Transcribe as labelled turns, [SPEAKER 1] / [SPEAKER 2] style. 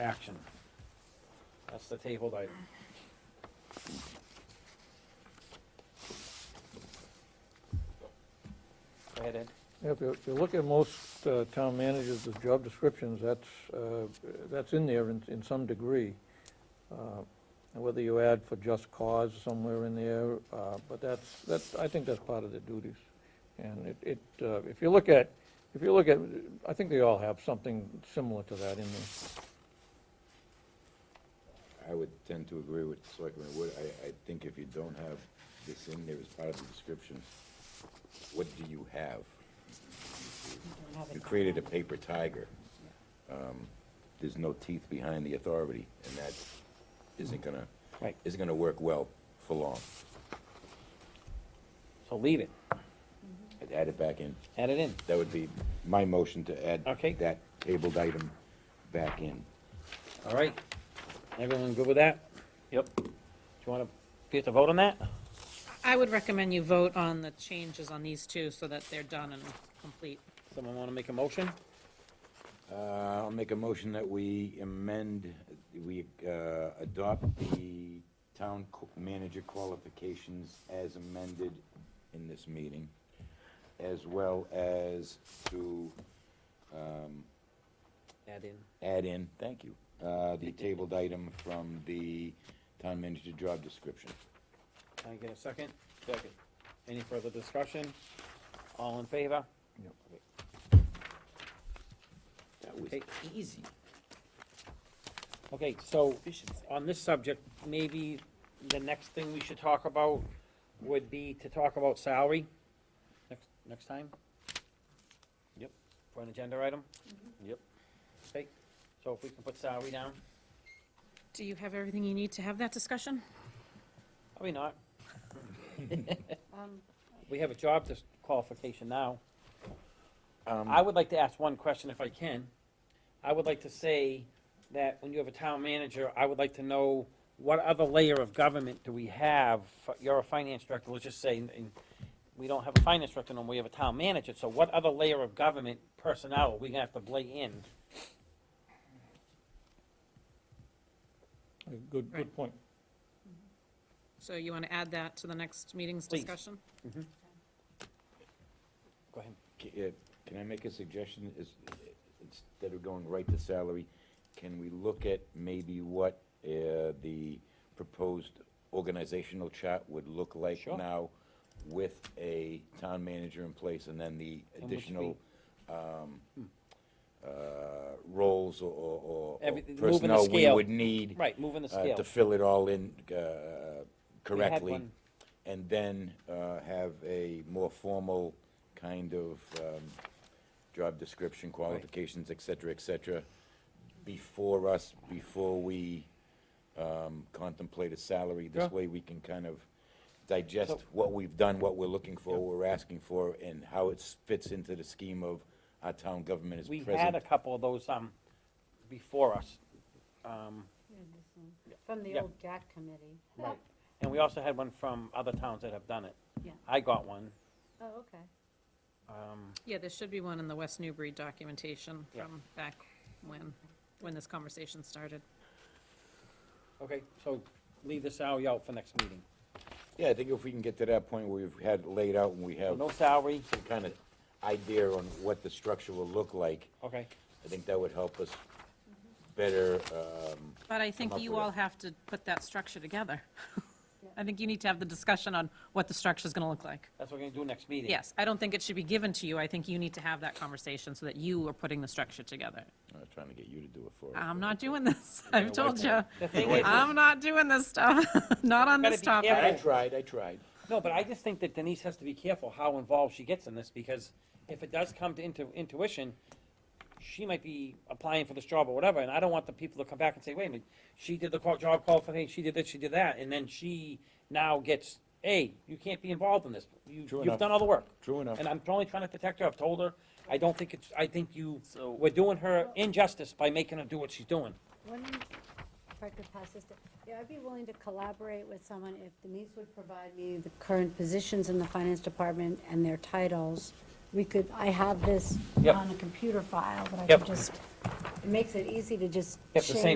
[SPEAKER 1] action. That's the tabled item. Go ahead, Ed.
[SPEAKER 2] Yeah, If you, if you look at most uh, town managers, the job descriptions, that's, uh, that's in there in, in some degree. Uh, And whether you add for just cause somewhere in there, uh, but that's, that's, I think that's part of the duties. And it, it, uh, if you look at, if you look at, I think they all have something similar to that in there.
[SPEAKER 3] I would tend to agree with Selectman Wood. I, I think if you don't have this in there as part of the description, what do you have? You created a paper tiger. Um, There's no teeth behind the authority, and that isn't gonna,
[SPEAKER 1] Right.
[SPEAKER 3] isn't gonna work well for long.
[SPEAKER 1] So leave it,
[SPEAKER 3] I'd Add it back in.
[SPEAKER 1] add it in.
[SPEAKER 3] That would be my motion to add
[SPEAKER 1] Okay.
[SPEAKER 3] that tabled item back in.
[SPEAKER 1] All right. Everyone good with that? Yep. Do you want to, get to vote on that?
[SPEAKER 4] I would recommend you vote on the changes on these two so that they're done and complete.
[SPEAKER 1] Someone want to make a motion?
[SPEAKER 3] Uh, I'll make a motion that we amend, we uh, adopt the town qu- manager qualifications as amended in this meeting, as well as to um,
[SPEAKER 1] Add in.
[SPEAKER 3] add in, thank you, uh, the tabled item from the town manager job description.
[SPEAKER 1] Can I get a second? Second. Any further discussion? All in favor?
[SPEAKER 3] That was
[SPEAKER 1] Okay.
[SPEAKER 3] easy.
[SPEAKER 1] Okay, so on this subject, maybe the next thing we should talk about would be to talk about salary next, next time?
[SPEAKER 5] Yep.
[SPEAKER 1] For an agenda item?
[SPEAKER 5] Yep.
[SPEAKER 1] Okay, so if we can put salary down,
[SPEAKER 4] Do you have everything you need to have that discussion?
[SPEAKER 1] are we not? We have a job dis- qualification now.
[SPEAKER 3] Um,
[SPEAKER 1] I would like to ask one question if I can. I would like to say that when you have a town manager, I would like to know what other layer of government do we have? You're a finance director, let's just say, and we don't have a finance director, and we have a town manager, so what other layer of government personnel are we gonna have to lay in?
[SPEAKER 2] Good, good
[SPEAKER 4] Right.
[SPEAKER 2] point.
[SPEAKER 4] So you want to add that to the next meeting's
[SPEAKER 1] Please.
[SPEAKER 4] discussion?
[SPEAKER 1] Go ahead.
[SPEAKER 3] C- uh, Can I make a suggestion, is, instead of going right to salary, can we look at maybe what uh, the proposed organizational chart would look like
[SPEAKER 1] Sure.
[SPEAKER 3] now with a town manager in place, and then the
[SPEAKER 1] And which
[SPEAKER 3] additional um,
[SPEAKER 1] Hmm.
[SPEAKER 3] uh, roles or- or or- or
[SPEAKER 1] Everything- moving the
[SPEAKER 3] personnel we
[SPEAKER 1] scale.
[SPEAKER 3] would need
[SPEAKER 1] Right, moving the
[SPEAKER 3] uh,
[SPEAKER 1] scale.
[SPEAKER 3] to fill it all in uh,
[SPEAKER 1] We had
[SPEAKER 3] correctly
[SPEAKER 1] one.
[SPEAKER 3] and then uh, have a more formal kind of um, job description, qualifications, et cetera, et cetera, before us, before we um, contemplate a salary.
[SPEAKER 1] Yeah.
[SPEAKER 3] This way, we can kind of digest
[SPEAKER 1] So-
[SPEAKER 3] what we've done, what we're looking for, what we're asking for, and how it fits into the scheme of our town government is
[SPEAKER 1] We
[SPEAKER 3] present.
[SPEAKER 1] had a couple of those, um, before us. Um,
[SPEAKER 6] From the
[SPEAKER 1] Yeah.
[SPEAKER 6] old DAT committee.
[SPEAKER 1] Right. And we also had one from other towns that have done it.
[SPEAKER 6] Yeah.
[SPEAKER 1] I got one.
[SPEAKER 6] Oh, okay.
[SPEAKER 1] Um,
[SPEAKER 4] Yeah, there should be one in the West Newbury documentation
[SPEAKER 1] Yeah.
[SPEAKER 4] from back when, when this conversation started.
[SPEAKER 1] okay, so leave the salary out for next meeting.
[SPEAKER 3] Yeah, I think if we can get to that point where we've had it laid out and we
[SPEAKER 1] So
[SPEAKER 3] have
[SPEAKER 1] No salary,
[SPEAKER 3] some kind of idea on what the structure will look like,
[SPEAKER 1] okay,
[SPEAKER 3] I think that would help us better, um,
[SPEAKER 4] But I think
[SPEAKER 3] up
[SPEAKER 4] you
[SPEAKER 3] with
[SPEAKER 4] all
[SPEAKER 3] it.
[SPEAKER 4] have to put that structure together. I think you need to have the discussion on what the structure's going to look like.
[SPEAKER 1] that's what we're gonna do next meeting.
[SPEAKER 4] Yes, I don't think it should be given to you. I think you need to have that conversation so that you are putting the structure together.
[SPEAKER 3] I'm not trying to get you to do it for us.
[SPEAKER 4] I'm
[SPEAKER 3] but-
[SPEAKER 4] not doing this. I've told you.
[SPEAKER 1] The thing is,
[SPEAKER 4] I'm not doing this stuff. Not on
[SPEAKER 1] Gotta
[SPEAKER 4] this
[SPEAKER 1] be
[SPEAKER 3] I
[SPEAKER 1] careful.
[SPEAKER 4] topic.
[SPEAKER 3] tried, I tried.
[SPEAKER 1] no, but I just think that Denise has to be careful how involved she gets in this, because if it does come to intu- intuition, she might be applying for this job or whatever, and I don't want the people to come back and say, wait a minute, she did the qual- job qualification, she did this, she did that, and then she now gets, hey, you can't be involved in this. You,
[SPEAKER 3] True
[SPEAKER 1] you've
[SPEAKER 3] enough.
[SPEAKER 1] done all the work.
[SPEAKER 3] True enough.
[SPEAKER 1] And I'm only trying to protect her, I've told her, I don't think it's, I think you, we're doing her injustice by making her do what she's doing.
[SPEAKER 6] Wouldn't, if I could pass this, down. yeah, I'd be willing to collaborate with someone if Denise would provide me the current positions in the finance department and their titles. We could, I have this
[SPEAKER 1] Yep.
[SPEAKER 6] on a computer file, but I
[SPEAKER 1] Yep.
[SPEAKER 6] could just, it makes it easy to just
[SPEAKER 1] Yep, the same
[SPEAKER 6] change